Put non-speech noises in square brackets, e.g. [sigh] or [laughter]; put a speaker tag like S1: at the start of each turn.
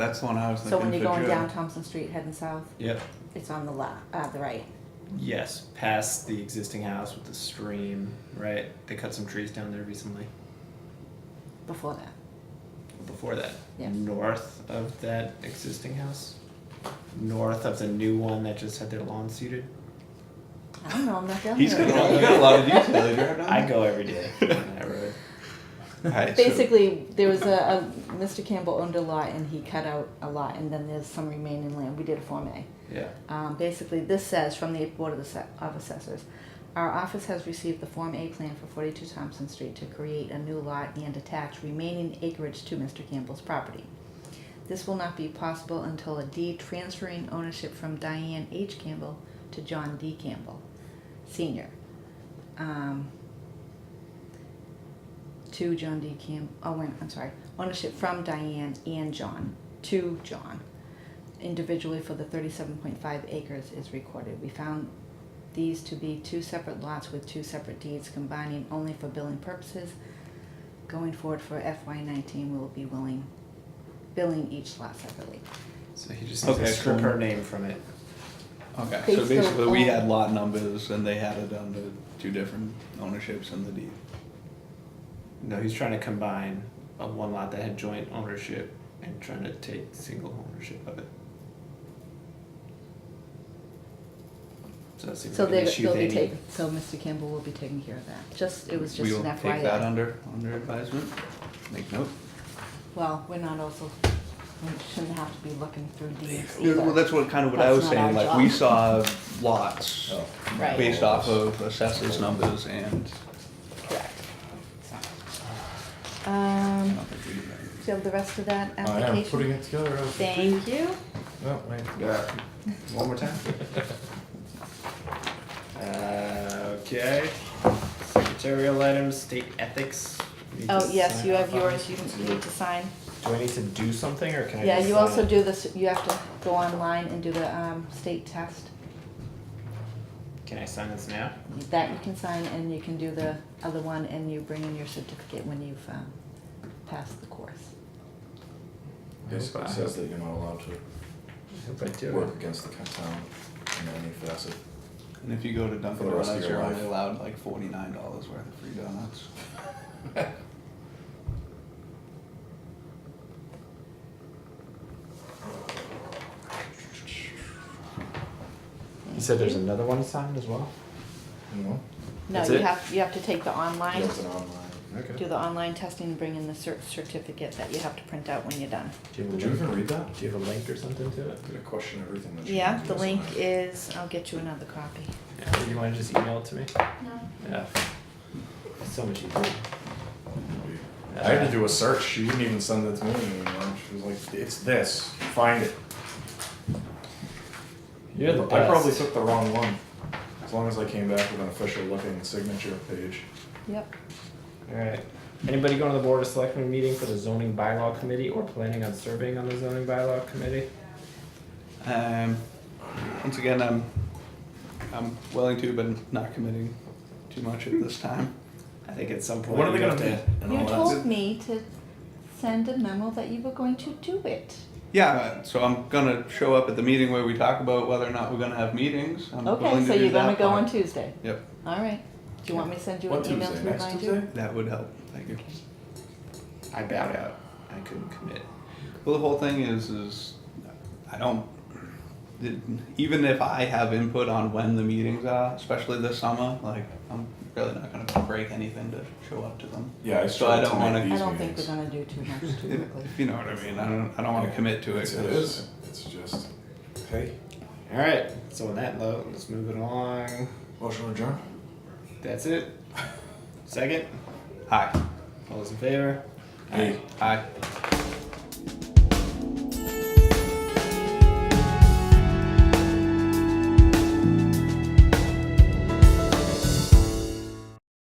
S1: That's the one I was thinking.
S2: So when you're
S1: for
S2: going
S1: Joe.
S2: down Thompson Street heading south,
S3: Yep.
S2: it's on the left, uh, the right.
S3: Yes, past the existing house with the stream, right? They cut some trees down there recently.
S2: Before that,
S3: Before that,
S2: Yeah.
S3: north of that existing house, north of the new one that just had their lawn seeded.
S2: I don't know. I'm not down
S1: He's
S2: there.
S1: got a lot, you got a lot of detail. Have you heard on
S3: I
S1: that?
S3: go every day
S2: [laughs]
S3: on that road.
S1: Alright, so-
S2: Basically, there was a, a Mr. Campbell owned a lot and he cut out a lot, and then there's some remaining land. We did a form A.
S3: Yeah.
S2: Um, basically, this says from the Board of, Asse- of Assessors, our office has received the Form A plan for 42 Thompson Street to create a new lot and attach remaining acreage to Mr. Campbell's property. This will not be possible until a deed transferring ownership from Diane H. Campbell to John D. Campbell, Senior. Um, to John D. Cam, oh, wait, I'm sorry, ownership from Diane and John to John individually for the thirty-seven point five acres is recorded. We found these to be two separate lots with two separate deeds combining only for billing purposes. Going forward for FY nineteen, we will be willing, billing each lot separately.
S3: So he just needs
S1: Okay,
S3: to strip
S1: cool.
S3: her name from it.
S1: okay,
S2: they
S1: so
S2: still
S1: basically we
S2: own-
S1: had lot numbers and they had it under two different ownerships in the deed.
S3: No, he's trying to combine a one lot that had joint ownership and trying to take single ownership of it. So that seems
S2: So
S3: like an
S2: they,
S3: issue
S2: they'll
S3: they
S2: be
S3: need.
S2: taken, so Mr. Campbell will be taking care of that. Just, it was
S1: We
S2: just
S1: will
S2: an
S1: Take that
S2: FYI.
S1: under, under advisement, make note.
S2: Well, we're not also, we shouldn't have to be looking through deeds
S1: Yeah, Well,
S2: either.
S1: that's what, kind of what I
S2: That's
S1: was
S2: not our
S1: saying, like, we
S2: job.
S1: saw lots
S4: Oh.
S2: Right.
S1: based off of assessors numbers and
S2: Correct. So, Um,
S1: I don't think we did that.
S2: do you have the rest of that
S4: I am
S2: application?
S4: Oh, putting it together. as we
S2: Thank
S4: speak.
S2: you.
S4: No, wait, yeah.
S3: One more time. Uh, okay. Secretarial items, state ethics. Need to
S2: Oh, yes,
S3: sign
S2: you
S3: off
S2: have
S3: on.
S2: yours, you you need to sign.
S4: Do I need to do something or can I
S2: Yeah,
S4: just
S2: you
S4: sign
S2: also
S4: it?
S2: do this, you have to go online and do the um, state test.
S3: Can I sign this now?
S2: That you can sign and you can do the other one and you bring in your certificate when you've um, passed the course.
S4: Yes, it says that you're not allowed to
S3: I hope I
S4: work against the town in any facet.
S1: And if you go to Dunkin'
S4: For the rest of
S1: Donuts,
S4: your
S1: you're only
S4: life.
S1: allowed like forty-nine dollars worth of free donuts.
S3: You said there's another one signed as well?
S4: You know?
S2: No,
S3: That's
S2: you
S3: it?
S2: have, you have to take the online,
S4: Built it online. Okay.
S2: do the online testing, and bring in the cert- certificate that you have to print out when you're done.
S3: Do you have a
S4: Did you
S3: link?
S4: even read that?
S3: Do you have a link or something to it?
S4: Did it question everything that you
S2: Yeah,
S4: wanted to
S2: the
S4: do,
S2: link
S4: isn't it?
S2: is, I'll get you another copy.
S3: Yeah, you wanna just email it to me? Yeah. So much easier.
S4: I had to do a search. She wouldn't even send it to me anymore. She was like, "It's this. Find it."
S3: You're the
S4: I probably
S3: best.
S4: took the wrong one. As long as I came back with an official looking signature page.
S2: Yep.
S3: Alright, anybody going to the Board of Selectmen meeting for the zoning bylaw committee or planning on serving on the zoning bylaw committee?
S1: Um, once again, I'm, I'm willing to, but not committing too much at this time.
S3: I think at some point.
S4: When are they
S3: you
S4: gonna
S3: have to-
S1: Oh,
S4: meet? And
S2: You
S4: all that.
S2: told me to send a memo that you were going to do it.
S1: Yeah, so I'm gonna show up at the meeting where we talk about whether or not we're gonna have meetings. I'm willing
S2: Okay,
S1: to
S2: so
S1: do
S2: you're gonna
S1: that
S2: go
S1: part.
S2: on Tuesday.
S1: Yep,
S2: All right. Do you want me to send you
S4: What
S2: an email
S4: Tuesday?
S2: to
S4: Next
S2: remind you?
S4: Tuesday?
S1: that would help, thank you.
S3: I bowed out, I couldn't commit.
S1: Well, the whole thing is, is I don't, even if I have input on when the meetings are, especially this summer, like, I'm really not gonna break anything to show up to them.
S4: Yeah, I
S1: So I
S4: struggled
S1: don't
S4: to make
S1: wanna-
S2: I
S4: these
S2: don't think we're
S4: meetings.
S2: gonna do too much too
S1: If [laughs]
S2: quickly.
S1: if you know what I mean, I don't, I don't wanna commit to it.
S4: It's,
S1: 'cause-
S4: it's, it's just, hey,
S3: Alright, so on that note, let's move it along.
S4: motion adjourned.
S3: That's it. [laughs] Second,
S1: Aye,
S3: all those in favor?
S4: Hey.
S1: aye.